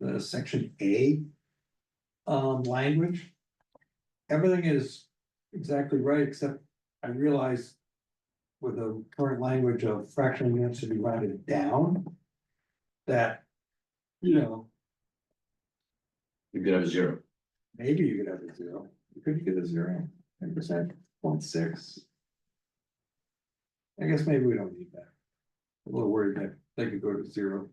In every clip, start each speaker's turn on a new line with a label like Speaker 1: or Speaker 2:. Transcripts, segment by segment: Speaker 1: the section A um, language. Everything is exactly right, except I realize with the current language of fractional units to be rounded down, that, you know,
Speaker 2: You could have a zero.
Speaker 1: maybe you could have a zero.
Speaker 3: You could get a zero, ten percent, point six.
Speaker 1: I guess maybe we don't need that. I'm A little worried that they could go to zero.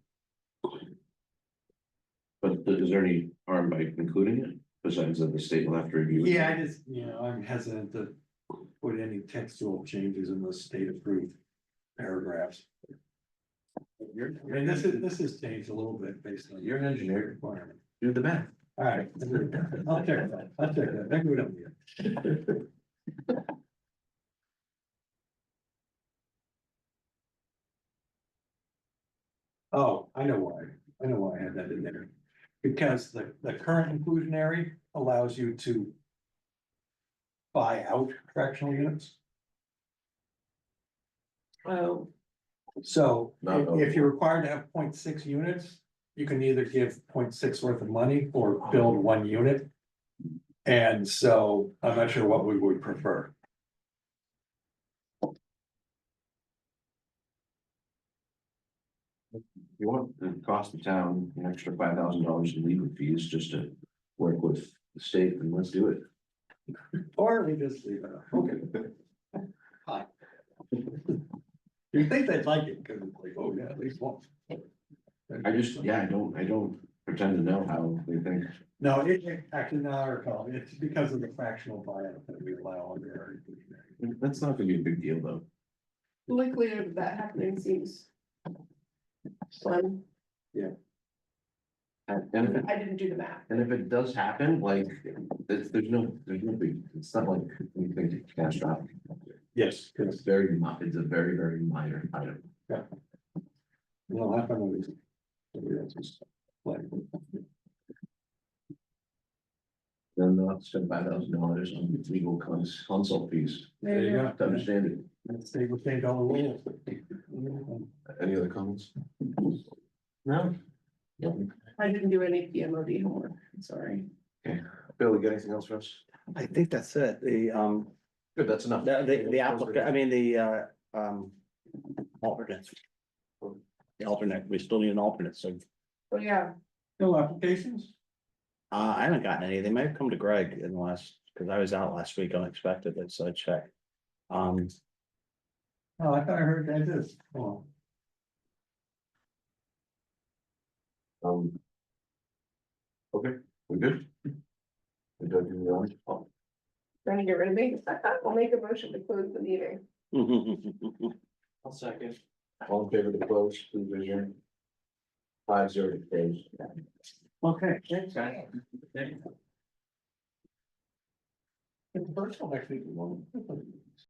Speaker 2: But th- is there any harm by including it, besides that the state will have to review? it?
Speaker 1: Yeah, I just, you know, I'm hesitant to put any textual changes in the state approved paragraphs.
Speaker 3: You're,
Speaker 1: I mean, this is, this is changed a little bit based on
Speaker 3: you're
Speaker 1: your
Speaker 3: an engineer,
Speaker 1: requirement.
Speaker 3: do the math.
Speaker 1: All right, I'll check that, I'll check that, thank you, we don't need it. Oh, I know why, I know why I had that in there, because the, the current inclusionary allows you to. Buy out fractional units,
Speaker 4: Oh,
Speaker 1: so
Speaker 2: Not
Speaker 1: if- if you're required to have 0.6 units. You can either give 0.6 worth of money or build one unit. And so I'm not sure what we would prefer.
Speaker 2: You want the cost of town, an extra five thousand dollars in legal fees just to work with the state and let's do it.
Speaker 1: Or we just leave it, up. okay. Hi. You think they'd like it, because it's like, oh yeah, at least once.
Speaker 2: I just, yeah, I don't, I don't pretend to know how they think.
Speaker 1: No, it, it- actually, now I recall, it's because of the fractional buyout that we allow under. our-
Speaker 2: That's not gonna be a big deal though.
Speaker 4: likelihood of that happening seems. Slim,
Speaker 2: And and if, it-
Speaker 4: I didn't do the math.
Speaker 2: and if it does happen, like, it's, there's no, there's no big, it's not like anything catastrophic.
Speaker 1: Yes.
Speaker 2: It's very, mi- it's a very, very minor item.
Speaker 1: Well, I found it. Somebody else's. Like,
Speaker 2: Then they'll spend five thousand dollars on legal cons- consult fees
Speaker 1: There you
Speaker 2: to
Speaker 1: go.
Speaker 2: understand it.
Speaker 1: Let's say we change all the rules.
Speaker 2: Any other comments? No? Yep.
Speaker 4: I didn't do any PMOD homework, sorry.
Speaker 2: Bill, you got anything else for us?
Speaker 5: I think that's it, the, um,
Speaker 2: Good, that's enough.
Speaker 5: the, the- the applicant, I mean, the, uh, um, alternate. The alternate, we still need an alternate, so,
Speaker 4: Oh, yeah,
Speaker 1: No applications?
Speaker 5: uh, I haven't gotten any, they may have come to Greg in the last, because I was out last week unexpectedly, so I checked. Um,
Speaker 1: Oh, I thought I heard that is. Oh,
Speaker 2: Um, Okay, we're good. We don't do the orange. Oh,
Speaker 4: trying to get rid of me. I'll make a motion to close the meeting.
Speaker 3: I'll second.
Speaker 2: All in favor to close, please raise your hand. Five zero to close.
Speaker 5: okay, thanks, guys.
Speaker 1: it's virtual next week.